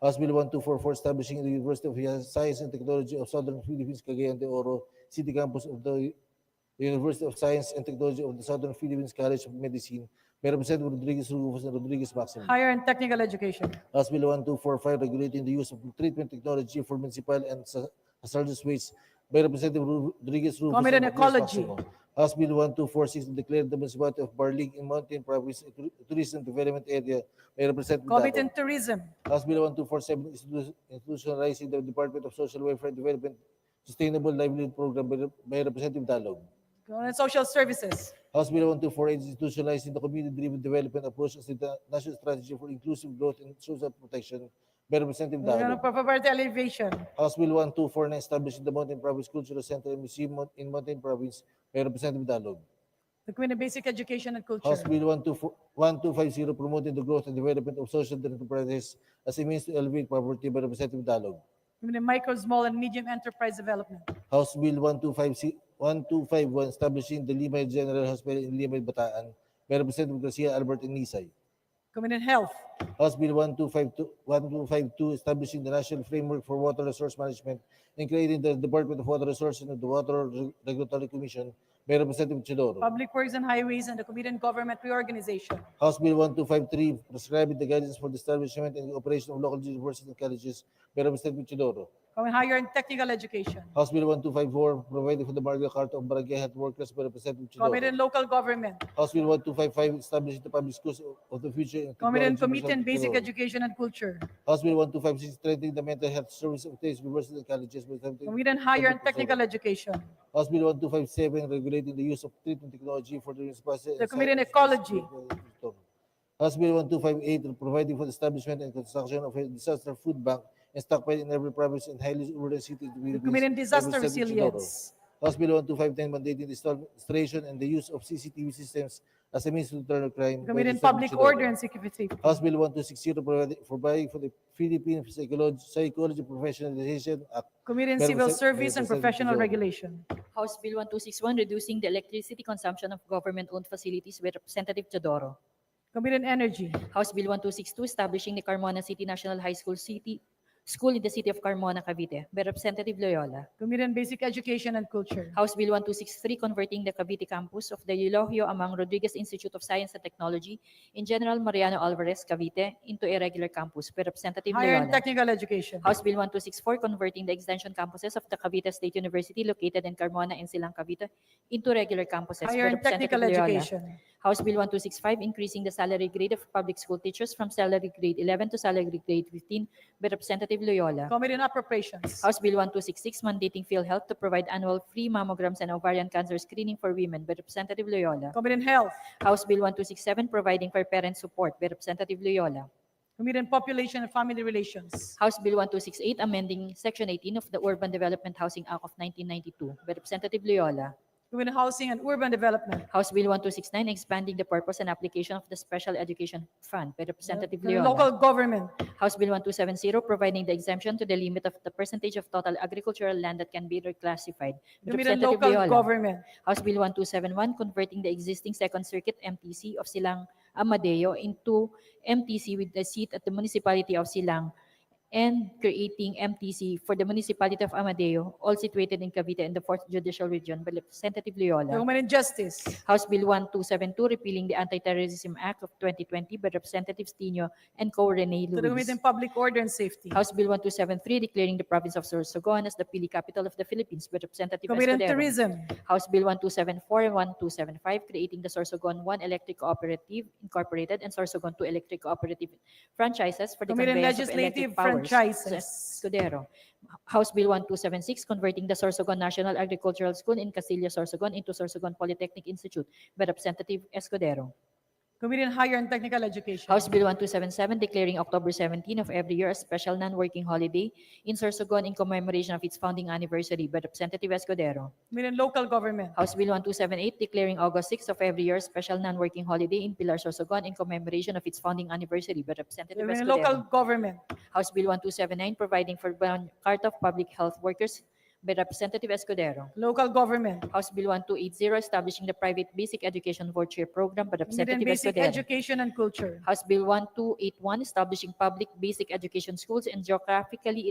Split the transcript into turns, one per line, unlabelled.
House Bill 1244 establishing the University of Science and Technology of Southern Philippines, Cagayan de Oro City Campus of the University of Science and Technology of the Southern Philippines College of Medicine by Representative Rodriguez Rufus and Rodriguez Maximo.
Higher and Technical Education.
House Bill 1245 regulating the use of treatment technology for municipal and sa- hazardous waste by Representative Ru- Rodriguez Rufus.
Comment on
Rodriguez
ecology.
Maximo. House Bill 1246 declared the municipality of Barling in Mountain Province a tur- tourism development area by Representative
Comment
Dato.
on Tourism.
House Bill 1247 institu- institutionalizing the Department of Social Welfare Development Sustainable Livelihood Program by Rep- by Representative Dalog.
Comment on Social Services.
House Bill 1248 institutionalizing the community-driven development approach as the da- national strategy for inclusive growth and social protection by Representative
Comment on
Dalog.
Poverty Alleviation.
House Bill 1249 establishing the Mountain Province Cultural Center and Museum mon- in Mountain Province by Representative Dalog.
The Committee on Basic Education and
House
Culture.
Bill 12- 1250 promoting the growth and development of social enterprises as a means to alleviate poverty by Representative Dalog.
Committee on Micro, Small, and Medium Enterprise Development.
House Bill 1256 1251 establishing the Limay General Hospital in Limay, Bataan by Representative Garcia Albert and Nisay.
Committee on Health.
House Bill 1252 1252 establishing the National Framework for Water Resource Management and creating the Department of Water Resources and the Water Re- Regulatory Commission by Representative Chidoro.
Public Works and Highways, and the Committee on Government Reorganization.
House Bill 1253 prescribing the guidance for the establishment and operation of local universities and colleges by Representative Chidoro.
Comment on Higher and Technical Education.
House Bill 1254 providing for the Magna Carta of Barangay Health Workers by Representative Chidoro.
Committee on Local Government.
House Bill 1255 establishing the public schools of the future. and
Committee on
technology
Committee on
Research
Basic
Technology.
Education and Culture.
House Bill 1256 strengthening the mental health service of the universities and colleges. by something-
Committee on Higher
Committee
and
on
Technical Education.
House Bill 1257 regulating the use of treatment technology for the municipality.
The
and
Committee on
science-
Ecology.
House Bill 1258 providing for the establishment and construction of a disaster food bank and stockpile in every province and highly urban city. in the
The
Philippines,
Committee on
by
Disaster
Representative Chidoro.
Resilience.
House Bill 1259 mandating the installation and the use of CCTV systems as a means to deter crime. by
The Committee on
Representative
Public
Chidoro.
Order and Security.
House Bill 1260 providing providing for the Philippine Psychology Psychology Professionalization Act.
Committee on
Madam
Civil
Sec-
Service and
Representative
Professional
Joy.
Regulation.
House Bill 1261, reducing the electricity consumption of government-owned facilities by Representative Teodoro.
Committee on Energy.
House Bill 1262, establishing the Carmona City National High School City School in the city of Carmona, Cavite by Representative Loyola.
Committee on Basic Education and Culture.
House Bill 1263, converting the Cavite campus of the Eulogio Amang Rodriguez Institute of Science and Technology in General Mariano Alvarez, Cavite into a regular campus by Representative
Higher and
Loyola.
Technical Education.
House Bill 1264, converting the extension campuses of the Cavite State University located in Carmona and Silang, Cavite into regular campuses by
Higher and
Representative
Technical
Loyola.
Education.
House Bill 1265, increasing the salary grade of public school teachers from salary grade 11 to salary grade 15 by Representative Loyola.
Committee on Appropriations.
House Bill 1266, mandating PhilHealth to provide annual free mammograms and ovarian cancer screening for women by Representative Loyola.
Committee on Health.
House Bill 1267, providing for parent support by Representative Loyola.
Committee on Population and Family Relations.
House Bill 1268, amending Section 18 of the Urban Development Housing Act of 1992 by Representative Loyola.
Committee on Housing and Urban Development.
House Bill 1269, expanding the purpose and application of the Special Education Fund by Representative
Committee on
Loyola.
Local Government.
House Bill 1270, providing the exemption to the limit of the percentage of total agricultural land that can be reclassified.
Committee on
Representative
Local
Viola.
Government.
House Bill 1271, converting the existing Second Circuit MTC of Silang Amadeo into MTC with the seat at the municipality of Silang and creating MTC for the municipality of Amadeo, all situated in Cavite in the 4th Judicial Region by Representative
The
Loyola.
Committee on Justice.
House Bill 1272, repealing the Anti-Terrorism Act of 2020 by Representatives Tino and Co. Rene
To the Committee
Luis.
on Public Order and Safety.
House Bill 1273, declaring the province of Sorsogon as the Pili capital of the Philippines by Representative
Committee on
Escudero.
Tourism.
House Bill 1274 and 1275, creating the Sorsogon 1 Electric Cooperative Incorporated and Sorsogon 2 Electric Cooperative Franchises for the
Committee on
conveyance of
Legislative
electric powers.
Franchises.
Escudero. House Bill 1276, converting the Sorsogon National Agricultural School in Casilla, Sorsogon into Sorsogon Polytechnic Institute by Representative Escudero.
Committee on Higher and Technical Education.
House Bill 1277, declaring October 17 of every year a special non-working holiday in Sorsogon in commemoration of its founding anniversary by Representative Escudero.
Committee on Local Government.
House Bill 1278, declaring August 6 of every year a special non-working holiday in Pilar, Sorsogon in commemoration of its founding anniversary by Representative
Committee on Local
Escudero.
Government.
House Bill 1279, providing for ban- Carta of Public Health Workers by Representative Escudero.
Local Government,
House Bill 1280, establishing the private basic education voucher program by
Committee on
Representative
Basic
Escudero.
Education and Culture.
House Bill 1281, establishing public basic education schools and geographically